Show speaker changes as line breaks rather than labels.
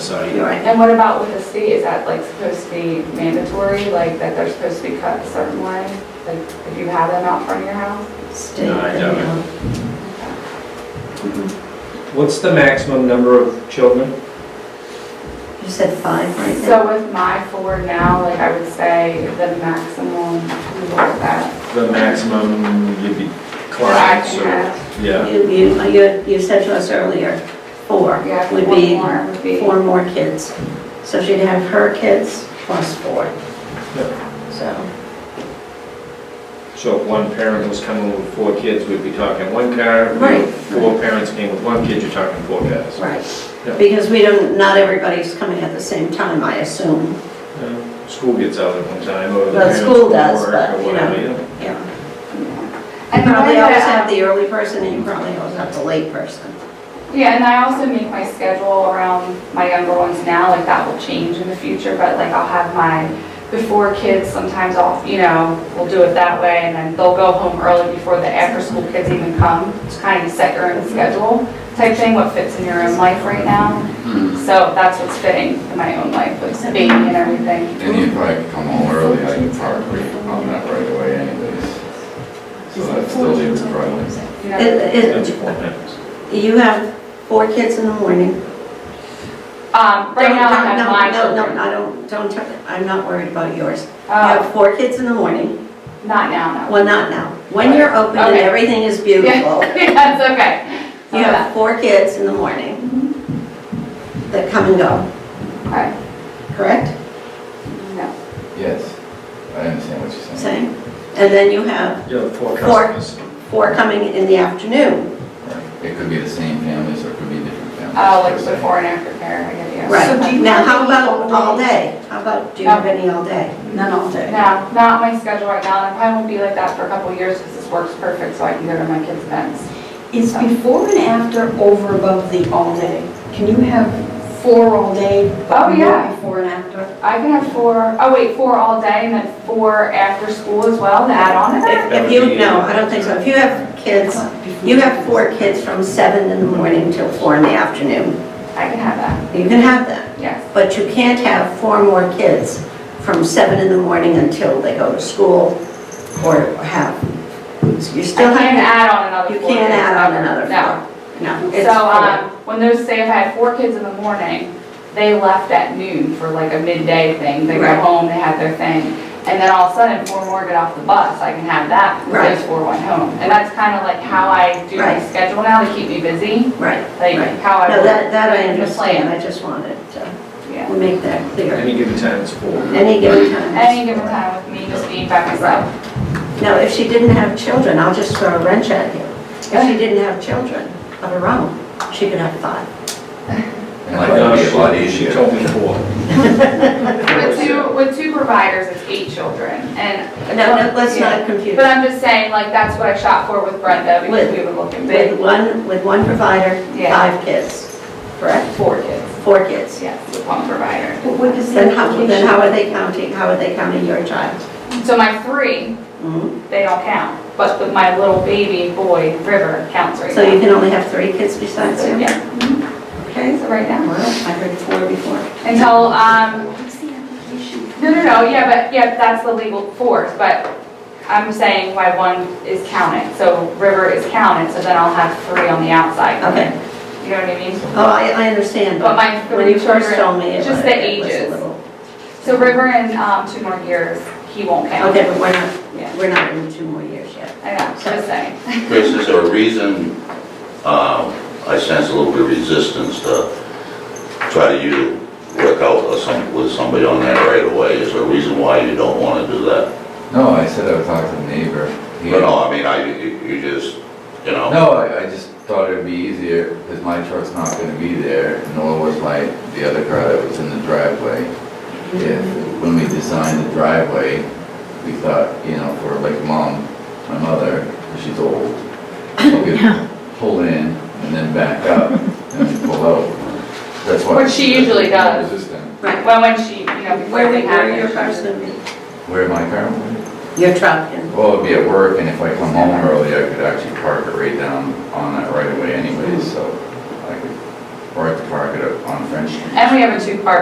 so. you-
You're right. And what about with the state? Is that like supposed to be mandatory, like that they're supposed to be cut a certain way? Like if you have them out front of your house?
State.
No, I don't.
Mm-hmm.
What's the maximum number of children?
You said five right now?
So with my four now, like I would say the maximum, we look at that.
The maximum you'd be
That
climbing,
I can
so,
have.
yeah.
You, you, uh, you- you said to us earlier, four
Yeah,
would
one
be
more would be-
four more kids. So she'd have her kids plus four. So,
So if one parent was coming with four kids, we'd be talking one car.
Right.
If Four parents came with one kid, you're talking four cars. Yeah.
right. Because we don't, not everybody's coming at the same time, I assume.
Yeah. School gets out at one time, or the
Well,
parents
school
go to
does,
work
but,
or
you
whatever,
know.
yeah.
Yeah. You
And the way
probably always
that,
have
um,
the early person and you probably always have the late person.
Yeah, and I also make my schedule around my younger ones now, like that will change in the future, but like I'll have my before kids sometimes off, you know, we'll do it that way, and then they'll go home early before the after-school kids even come, to kind of set your own schedule type thing, what fits in your own life right now. So that's what's fitting in my own life, with baby and everything.
And you'd probably come home early, I could probably on that right away anyways. So that still leaves probably.
you know.
It- it-
That's four parents.
You have four kids in the morning.
Um, right now, I have my
No, no, no,
children.
no, I don't, don't, tell- I'm not worried about yours. You
Uh,
Oh.
have four kids in the morning,
Not now, no.
well, not now. When you're open and
Okay.
everything is beautiful,
Yeah, That's okay.
you have four kids in the morning that come and go,
Okay,
correct?
no.
Yes, I understand what you're saying.
Same. And then you have
You have four
Four.
customers.
four coming in the afternoon.
Right. It could be the same families or it could be different families.
Oh, like
per se.
before and after care, I get you.
Right.
So do you
Now,
have
how
any
about
all
all
day?
day? How about, do you have any all day?
None all day.
No, not my schedule right now, and it probably won't be like that for a couple of years because this works perfect, so I can go to my kids' events.
Is before and after over above the all day? Can you have four all day? but
Oh,
more
yeah.
Before and after?
I can have four, oh wait, four all day and then four after school as well to add on to that?
If if you, no, I don't think so. If you have kids, you have four kids from seven in the morning till four in the afternoon,
I can have that,
you can have that.
yes.
But you can't have four more kids from seven in the morning until they go to school or have, you
I
still
can't
have,
add on another
you
four.
can't
days,
add on
no.
another
No.
four. No, it's
So, um,
four.
when those, say if I had four kids in the morning, they left at noon for like a midday thing, they go
Right.
home, they had their thing, and then all of a sudden, four more get off the bus, I can have that,
Right.
because those four went home. And that's kind of like how I do my
Right.
schedule now to keep me busy,
Right,
like
right.
how I.
No,
work
that, that I
the
understand,
plan.
I just wanted to
Yeah.
make that clear.
Any given time, it's four.
Any given time.
Any given time with me just being by myself.
Now, if she didn't have children, I'll just throw a wrench at you. If she didn't have children of her own, she could have five.
And like, it'd be a lot
She-
easier.
She told me four.
With two, with two providers, it's eight children, and.
No, no, let's
Yeah.
not confuse.
But I'm just saying, like, that's what I shot for with Brenda, because
With-
we were looking
With
big,
one, with one provider,
Yeah.
five kids, correct?
four kids,
Four kids.
yes, with one provider.
But what is the
Then how, then how
implication?
are they counting, how are they counting your child?
So my three,
Mhm.
they don't count, but the- my little baby boy, River, counts right now.
So you can only have three kids besides
So,
you?
Yeah,
Okay.
so right now.
Well, I heard four before.
Until, um, no, no, no, yeah, but, yeah, that's the legal force, but I'm saying why one is counted. So River is counted, so then I'll have three on the outside.
Okay.
You know what I mean?
Oh, I, I understand,
But
but
my
when you
three
first
children,
told me it was,
just the
it was a
ages.
little.
so River in, um, two more years, he won't count.
Okay, but we're not,
Yeah,
we're not in two more years yet.
I know, just saying.
Chris, is there a reason, um, I sense a little bit of resistance to try to you work out or some- with somebody on that right away? Is there a reason why you don't want to do that?
No, I said I would talk to the neighbor. He-
But no, I mean, I, you you just, you know?
No, I, I just thought it'd be easier, because my truck's not gonna be there, nor was my, the other car that was in the driveway. If, when we designed the driveway, we thought, you know, for like mom, my mother, 'cause she's old, we could pull in and then back up and then pull out. That's why.
Which she usually does.
Resistant.
Right.
Well, when she, you know, before
Where,
they
where your
have
first
it.
would be?
Where my car went.
Your truck and,
Well, it'd be at work, and if I come home early, I could actually park it right down on that right away anyways, so I could
or I could park it on French Street.
And we have a two-car